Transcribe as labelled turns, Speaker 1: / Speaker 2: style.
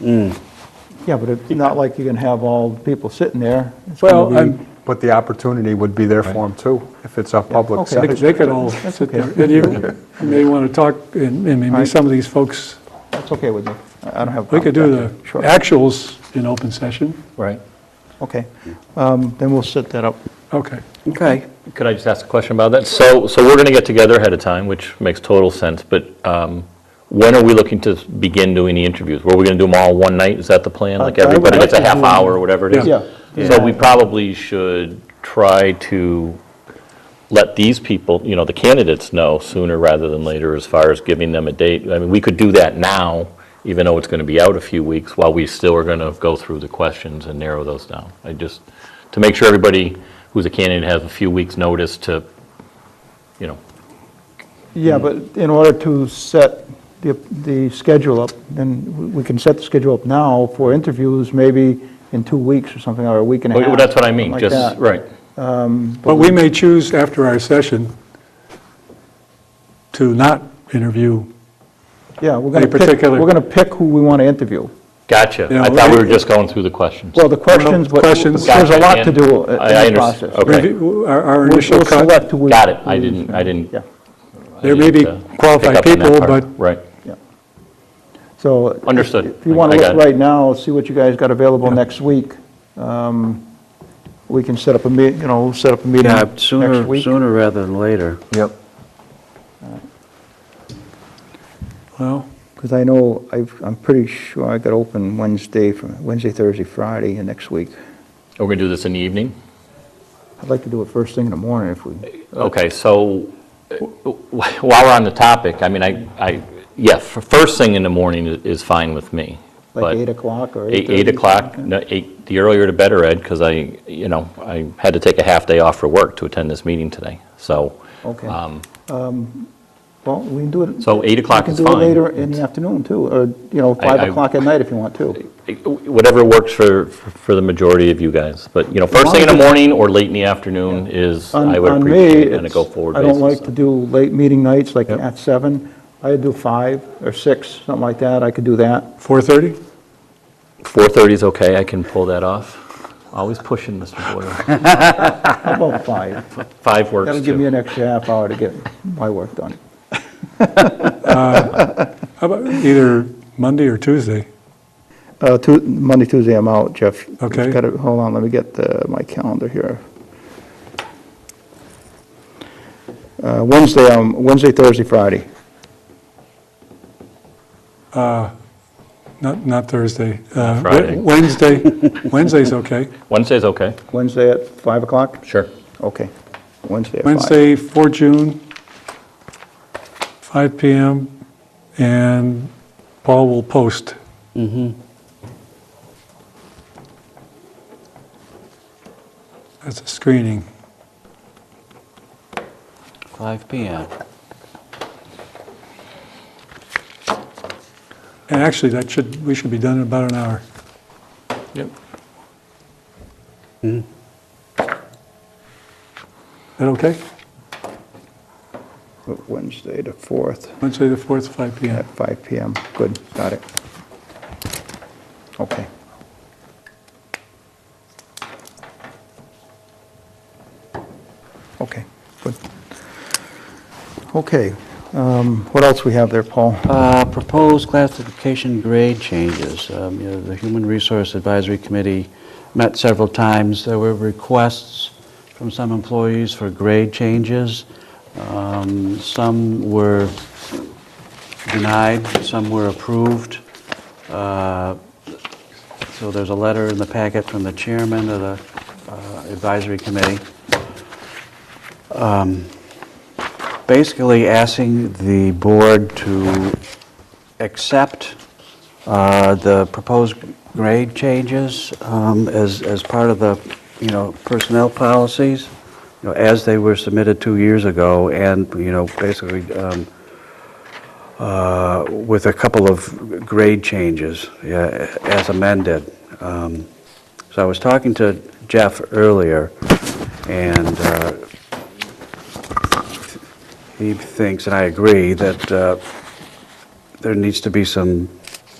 Speaker 1: Yeah, but it's not like you can have all the people sitting there. It's gonna
Speaker 2: Well,
Speaker 1: be-
Speaker 2: I'm-
Speaker 3: But the opportunity would be there for them too, if it's a public
Speaker 1: Okay.
Speaker 2: they
Speaker 3: setting.
Speaker 2: they could all
Speaker 1: That's
Speaker 2: sit there.
Speaker 1: okay.
Speaker 2: And you you may want to talk, and and maybe
Speaker 1: Alright.
Speaker 2: some of these folks,
Speaker 1: That's okay with me. I I don't have a
Speaker 2: we could do
Speaker 1: problem
Speaker 2: the
Speaker 1: with that. Sure.
Speaker 2: actuals in open session.
Speaker 4: Right.
Speaker 1: Okay, Um, then we'll set that up.
Speaker 2: Okay.
Speaker 5: Okay.
Speaker 4: Could I just ask a question about that? So, so we're going to get together ahead of time, which makes total sense, but um, when are we looking to begin doing the interviews? Were we going to do them all one night? Is that the plan? Like
Speaker 1: Uh, I would
Speaker 4: everybody
Speaker 1: like
Speaker 4: gets a
Speaker 1: to
Speaker 4: half
Speaker 1: do-
Speaker 4: hour or whatever it is?
Speaker 2: Yeah.
Speaker 1: Yeah.
Speaker 4: So we probably should try to let these people, you know, the candidates know sooner rather than later as far as giving them a date. I mean, we could do that now, even though it's going to be out a few weeks, while we still are going to go through the questions and narrow those down. I just, to make sure everybody who's a candidate has a few weeks' notice to, you know,
Speaker 1: Yeah, but in order to set the, the schedule up, then we can set the schedule up now for interviews, maybe in two weeks or something, or a week and a
Speaker 4: well,
Speaker 1: half.
Speaker 4: that's what I mean,
Speaker 1: something like
Speaker 4: just,
Speaker 1: that.
Speaker 4: right.
Speaker 2: But we may choose after our session to not interview.
Speaker 1: Yeah, we're gonna
Speaker 2: Any
Speaker 1: pick,
Speaker 2: particular-
Speaker 1: we're gonna pick who we want to interview.
Speaker 4: Gotcha.
Speaker 2: Yeah,
Speaker 4: I thought we
Speaker 2: we-
Speaker 4: were just going through the questions.
Speaker 1: Well, the questions, but
Speaker 2: questions.
Speaker 1: there's a lot
Speaker 4: Gotcha,
Speaker 1: to do in
Speaker 4: I- I
Speaker 1: the
Speaker 4: understand.
Speaker 1: process.
Speaker 4: Okay.
Speaker 2: review- Our our
Speaker 1: We'll-
Speaker 2: initial
Speaker 1: we'll
Speaker 2: cut,
Speaker 1: select who we-
Speaker 4: Got it, I didn't, I didn't.
Speaker 1: Yeah,
Speaker 2: there may
Speaker 4: Uh,
Speaker 2: be qualified people, but
Speaker 4: Right,
Speaker 1: yeah. So.
Speaker 4: Understood.
Speaker 1: If you want
Speaker 4: I
Speaker 1: to
Speaker 4: got
Speaker 1: look
Speaker 4: it.
Speaker 1: right now, see what you guys got available next week. Um, We can set up a meet, you know, we'll set up a meeting
Speaker 5: Yeah,
Speaker 1: next
Speaker 5: sooner,
Speaker 1: week.
Speaker 5: sooner rather than later.
Speaker 3: Yep.
Speaker 2: well,
Speaker 1: Because I know, I've, I'm pretty sure I got open Wednesday, for Wednesday, Thursday, Friday, and next week.
Speaker 4: we're going to do this in the evening?
Speaker 1: I'd like to do it first thing in the morning if we,
Speaker 4: Okay, so uh, wh- while we're on the topic, I mean, I, I, yeah, f- first thing in the morning i- is fine with me.
Speaker 1: like
Speaker 4: but
Speaker 1: 8 o'clock or 8:30.
Speaker 4: eight- Eight o'clock, no, eight, the earlier the better, Ed, because I, you know, I had to take a half day off for work to attend this meeting today. So,
Speaker 1: Okay.
Speaker 4: um,
Speaker 1: Well, we can do it.
Speaker 4: So 8 o'clock is
Speaker 1: We can do
Speaker 4: fine.
Speaker 1: it later in the afternoon, too, or, you know, 5
Speaker 4: I-
Speaker 1: o'clock at night if you want to.
Speaker 4: whatever works for, for the majority of you guys. But, you know, first thing in the morning or late in the afternoon is,
Speaker 1: On-
Speaker 4: I would
Speaker 1: on me,
Speaker 4: appreciate on a
Speaker 1: it's-
Speaker 4: go-forward
Speaker 1: I
Speaker 4: basis.
Speaker 1: don't like
Speaker 4: so.
Speaker 1: to do late meeting nights, like
Speaker 2: Yep.
Speaker 1: at 7. I'd do 5 or 6, something like that, I could do that.
Speaker 2: 4:30?
Speaker 4: 4:30 is okay, I can pull that off. Always pushing, Mr. Boyle.
Speaker 1: How about 5?
Speaker 4: Five works,
Speaker 1: That'll give
Speaker 4: too.
Speaker 1: me an extra half hour to get my work done.
Speaker 2: How about either Monday or Tuesday?
Speaker 1: Uh, Tu- Monday, Tuesday, I'm out, Jeff.
Speaker 2: Okay.
Speaker 1: Just gotta- Hold on, let me get uh, my calendar here. Uh, Wednesday, um, Wednesday, Thursday, Friday.
Speaker 2: Not, not Thursday. Uh,
Speaker 4: Friday.
Speaker 2: Wed- Wednesday, Wednesday's okay.
Speaker 4: Wednesday's okay?
Speaker 1: Wednesday at 5 o'clock?
Speaker 4: Sure.
Speaker 1: Okay. Wednesday at 5.
Speaker 2: Wednesday, 4 June, 5 PM, and Paul will post. That's a screening.
Speaker 5: 5 PM.
Speaker 2: And actually, that should, we should be done in about an hour.
Speaker 4: Yep.
Speaker 2: Hmm? That okay?
Speaker 1: Wednesday the 4th
Speaker 2: Wednesday, the 4th, 5
Speaker 1: at
Speaker 2: PM.
Speaker 1: 5 PM. Good, got it. Okay. Okay, good. Okay, um, what else we have there, Paul?
Speaker 5: Uh, Proposed classification grade changes. Um, you know, The Human Resource Advisory Committee met several times. There were requests from some employees for grade changes. Um, Some were denied, some were approved. Uh, So there's a letter in the packet from the chairman of the uh, advisory committee basically asking the board to accept uh, the proposed grade changes um, as, as part of the, you know, personnel policies, you know, as they were submitted two years ago, and, you know, basically um, uh, with a couple of grade changes yeah, as amended. Um, So I was talking to Jeff earlier, and uh, he thinks, and I agree, that uh, there needs to be some